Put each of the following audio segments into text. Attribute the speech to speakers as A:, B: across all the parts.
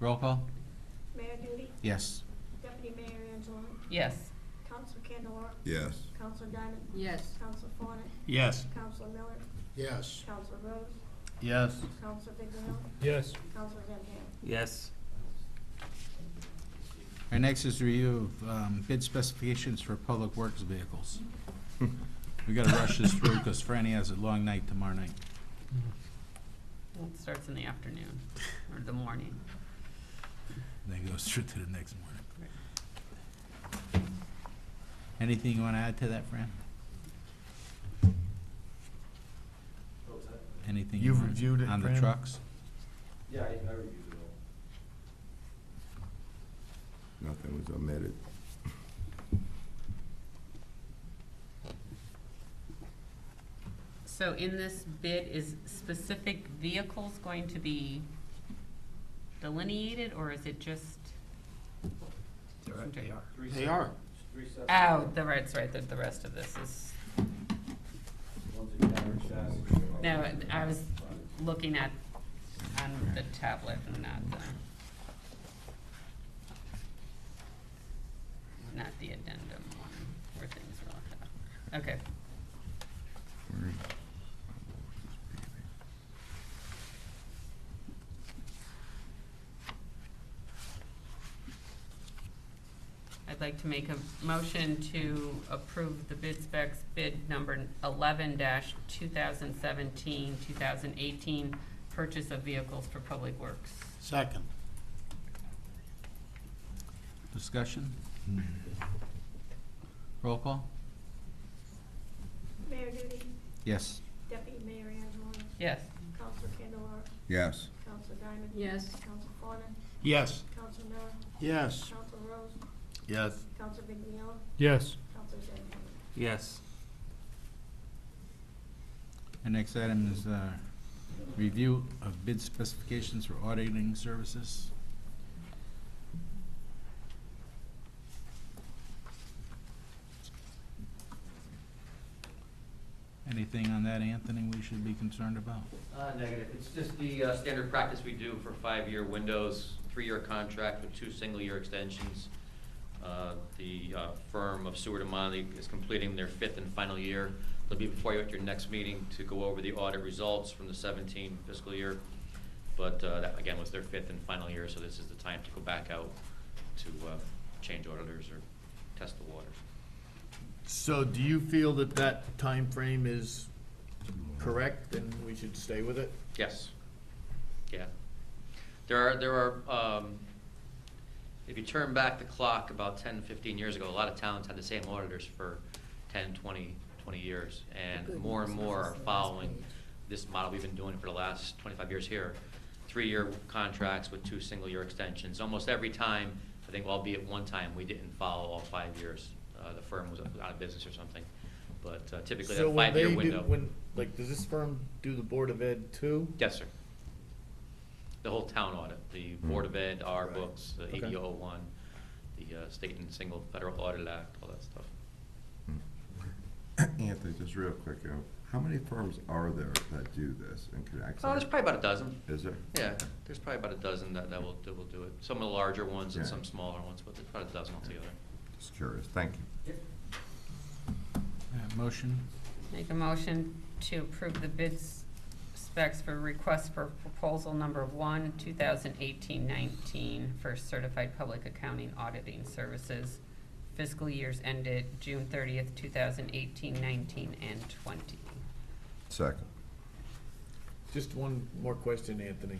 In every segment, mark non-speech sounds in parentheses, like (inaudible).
A: Roll call?
B: Mayor Duty,
A: Yes.
B: Deputy Mayor Angeloni,
C: Yes.
B: Council Candelar,
D: yes,
B: Council Diamond,
C: Yes.
B: Council Fawnin,
E: Yes.
B: Council Miller,
F: Yes.
B: Council Rose,
A: Yes.
B: Council Viglione,
F: Yes.
B: Council Zambrano.
E: Yes.
A: Our next is review of um, bid specifications for public works (laughs) vehicles. We gotta rush this through because Franny has a long night tomorrow night.
C: Well, it starts in the afternoon or the morning.
A: Then it goes (laughs) through to the next morning. Anything you wanna add to that, Fran? Anything? you
E: You've
A: wanna-
E: reviewed it,
A: On the
E: Fran?
A: trucks?
G: Yeah, I, I reviewed it all.
D: nothing was omitted.
C: So in this bid, is specific vehicles going to be delineated, or is it just?
E: They are.
G: Three
F: They
G: sep-
F: are.
G: Three separate.
C: Oh, the, right, it's right, that the rest of this is,
G: One's a camera chassis.
C: no, I was looking at, on the tablet and not the, not the addendum one, where things were left out. Okay, I'd like to make a motion to approve the bid specs, bid number eleven dash 2017-2018, purchase of vehicles for public works.
F: Second.
A: Discussion? Roll call?
B: Mayor Duty,
A: Yes.
B: Deputy Mayor Angeloni,
C: Yes.
B: Council Candelar,
D: Yes,
B: Council Diamond,
C: Yes.
B: Council Fawnin,
E: Yes.
B: Council Miller,
F: Yes.
B: Council Rose,
E: Yes.
B: Council Viglione,
F: Yes.
B: Council Zambrano.
E: Yes.
A: Our next item is uh, review of bid specifications for auditing services. Anything on that, Anthony, we should be concerned about?
G: Uh, negative. It's just the uh, standard practice we do for five-year windows, three-year contract with two single-year extensions. Uh, The uh, firm of Seward and Monley is completing their fifth and final year. They'll be before you at your next meeting to go over the audit results from the 17 fiscal year. But uh, that, again, was their fifth and final year, so this is the time to go back out to uh, change auditors or test the waters.
E: So do you feel that that time frame is correct and we should stay with it?
G: Yes. Yeah. There are, there are, um, if you turn back the clock about 10, 15 years ago, a lot of towns had the same auditors for 10, 20, 20 years. And more and more are following this model we've been doing for the last 25 years here. Three-year contracts with two single-year extensions. Almost every time, I think albeit one time, we didn't follow all five years. Uh, The firm was out of business or something. But uh, typically,
E: So
G: that
E: when they
G: five-year
E: do,
G: window.
E: When, like, does this firm do the Board of Ed too?
G: Yes, sir. The whole town audit, the Board of Ed, our
E: Right.
G: books, the
E: Okay.
G: ADO one, the uh, state and single federal audit act, all that stuff.
D: Mm-hmm. Anthony, just real quick, uh, how many firms are there that do this and could
G: Oh, there's
D: actually?
G: probably about a dozen.
D: Is there?
G: Yeah, there's probably about a dozen that, that will, that will do it. Some of the larger ones and
D: Yeah.
G: some smaller ones, but there's probably a dozen altogether.
D: Just curious, thank you.
A: Uh, Motion?
C: Make a motion to approve the bid s- specs for request for proposal number one, 2018-19 for certified public accounting auditing services. Fiscal years ended June thirtieth, 2018, 19, and twenty.
D: Second.
E: Just one more question, Anthony.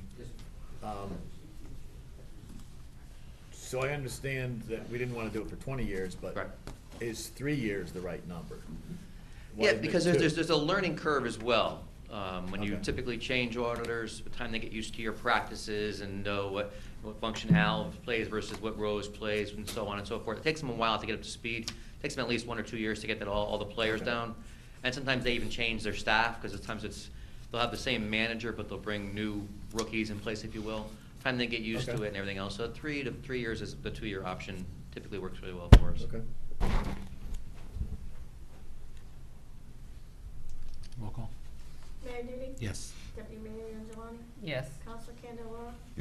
E: Um, So I understand that we didn't wanna do it for twenty years, but
G: Right.
E: is three years the right number? Why
G: Yeah,
E: isn't it
G: because there's,
E: two?
G: there's, there's a learning curve as well. Um, when you
E: Okay.
G: typically change auditors, by the time they get used to your practices and know what, what function Hal plays versus what Rose plays and so on and so forth. It takes them a while to get up to speed. Takes them at least one or two years to get that all, all the players
E: Okay.
G: down. And sometimes they even change their staff, because sometimes it's, they'll have the same manager, but they'll bring new rookies in place, if you will. Time they get used to
E: Okay.
G: it and everything else. So three to, three years is the two-year option typically works really well for us.
E: Okay.
A: Roll call?
B: Mayor Duty,
A: Yes.
B: Deputy Mayor Angeloni,
C: Yes.